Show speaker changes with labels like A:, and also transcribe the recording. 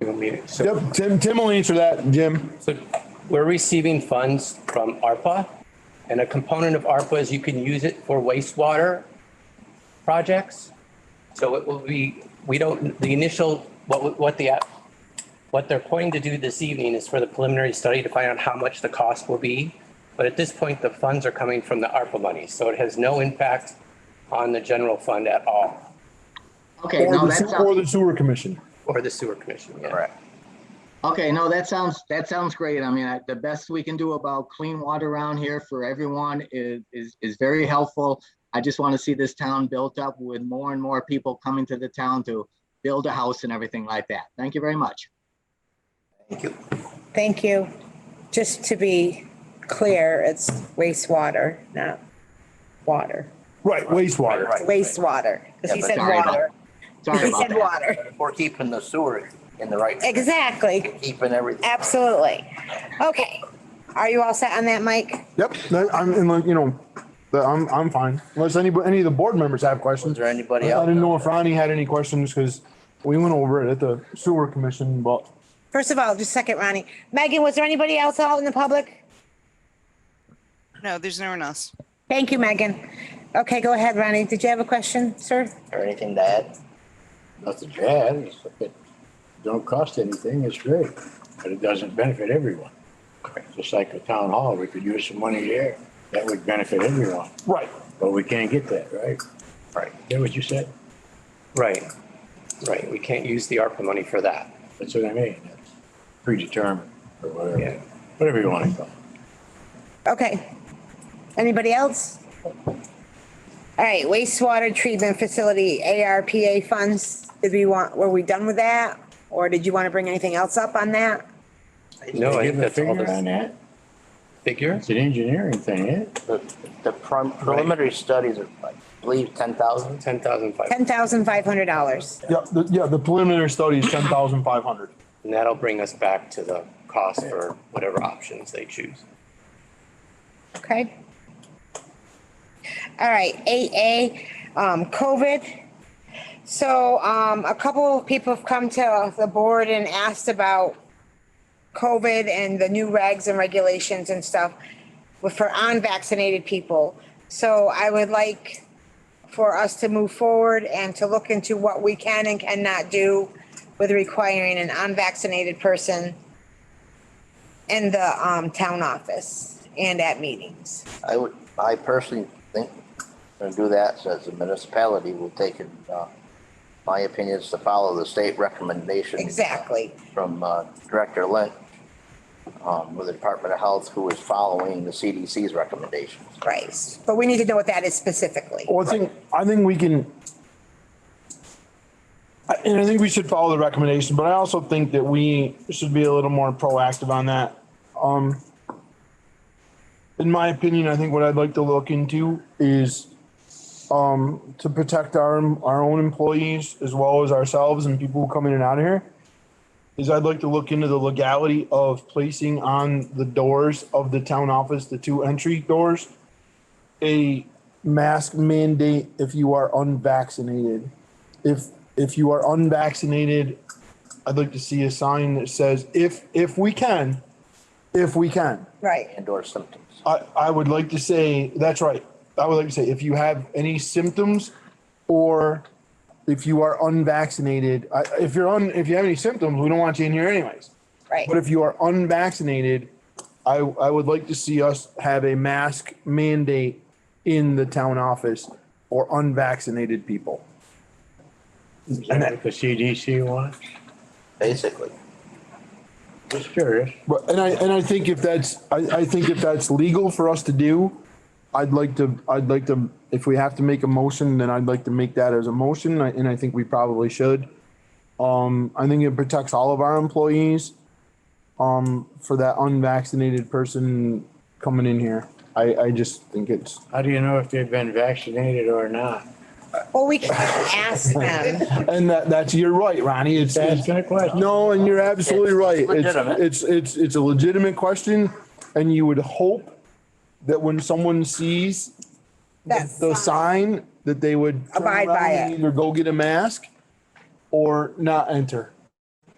A: annual meeting. So
B: Yep, Tim, Tim will answer that, Jim.
A: So we're receiving funds from ARPA, and a component of ARPA is you can use it for wastewater projects. So it will be, we don't, the initial, what, what the, app- what they're pointing to do this evening is for the preliminary study to find out how much the cost will be. But at this point, the funds are coming from the ARPA money, so it has no impact on the general fund at all,
C: Okay,
B: Or
C: no,
B: the
C: that
B: sewer- or
C: sounds,
B: the sewer commission.
A: or the sewer commission, yeah.
D: Correct.
C: okay, no, that sounds, that sounds great. I mean, I- the best we can do about clean water around here for everyone is, is, is very helpful. I just want to see this town built up with more and more people coming to the town to build a house and everything like that. Thank you very much.
D: Thank you.
E: Thank you. Just to be clear, it's wastewater, not water.
B: Right, wastewater.
D: Right, right.
E: Wastewater, because he
D: Yeah, but
E: said
C: sorry about-
E: water.
C: Sorry
E: He
C: about
E: said
C: that.
E: water.
D: We're keeping the sewer in the right,
E: Exactly.
D: keeping everything.
E: Absolutely. Okay. Are you all set on that, Mike?
B: Yep, that- I'm, and like, you know, that I'm, I'm fine. Unless any, any of the board members have
D: Is
B: questions.
D: there anybody
B: I
D: else?
B: didn't know if Ronnie had any questions because we went over it at the sewer commission, but
E: First of all, just a second, Ronnie. Megan, was there anybody else out in the public?
F: No, there's no one else.
E: Thank you, Megan. Okay, go ahead, Ronnie. Did you have a question, sir?
D: Or anything to add?
G: nothing bad. It's, it don't cost anything. It's great, but it doesn't benefit everyone. Just like the town hall, we could use some money there. That would benefit everyone,
B: right.
G: but we can't get that, right?
D: Right.
G: Is that what you said?
A: Right, right. We can't use the ARPA money for that.
G: That's what I mean. That's predetermined or
A: Yeah.
G: whatever, whatever you want to call it.
E: Okay. Anybody else? All right, wastewater treatment facility, ARPA funds, did we want, were we done with that? Or did you want to bring anything else up on that?
A: No, I
G: Give
A: think
G: a
A: that's all
G: figure On
A: the
G: that,
A: figure.
G: it's an engineering thing, eh?
D: The, the prim- preliminary studies are, I believe, ten thousand?
A: Ten thousand five,
E: Ten thousand five hundred dollars.
B: Yep, the- yeah, the preliminary study is ten thousand five hundred.
A: and that'll bring us back to the cost for whatever options they choose.
E: Okay. All right, eight A, um, COVID. So, um, a couple of people have come to the board and asked about COVID and the new regs and regulations and stuff with- for unvaccinated people. So I would like for us to move forward and to look into what we can and cannot do with requiring an unvaccinated person in the, um, town office and at meetings.
D: I would, I personally think to do that, says the municipality will take it, uh, my opinion is to follow the state recommendation.
E: Exactly.
D: From, uh, Director Lynch, um, with the Department of Health, who is following the CDC's recommendations.
E: Right, but we need to know what that is specifically.
B: Well, I think, I think we can. I- And I think we should follow the recommendation, but I also think that we should be a little more proactive on that. Um. In my opinion, I think what I'd like to look into is, um, to protect our, our own employees as well as ourselves and people who come in and out of here. Is I'd like to look into the legality of placing on the doors of the town office, the two entry doors. A mask mandate if you are unvaccinated. If if you are unvaccinated, I'd like to see a sign that says if if we can, if we can.
E: Right,
D: Indoor symptoms.
B: I, I would like to say, that's right. I would like to say, if you have any symptoms or if you are unvaccinated, I, if you're on, if you have any symptoms, we don't want you in here anyways.
E: right.
B: But if you are unvaccinated, I, I would like to see us have a mask mandate in the town office for unvaccinated people.
G: Is that what the CDC wants?
D: Basically,
G: Just curious.
B: But, and I, and I think if that's, I, I think if that's legal for us to do, I'd like to, I'd like to, if we have to make a motion, then I'd like to make that as a motion, I- and I think we probably should. Um, I think it protects all of our employees, um, for that unvaccinated person coming in here. I, I just think it's,
G: How do you know if they've been vaccinated or not?
E: Well, we can ask them.
B: and that, that's, you're right, Ronnie, it's, it's-
G: Asking a question.
B: No, and you're absolutely right.
D: legitimate.
B: It's, it's, it's, it's a legitimate question and you would hope that when someone sees
E: That's
B: the sign, that they would. turn
E: Abide by
B: around and
E: it.
B: Either go get a mask or not enter.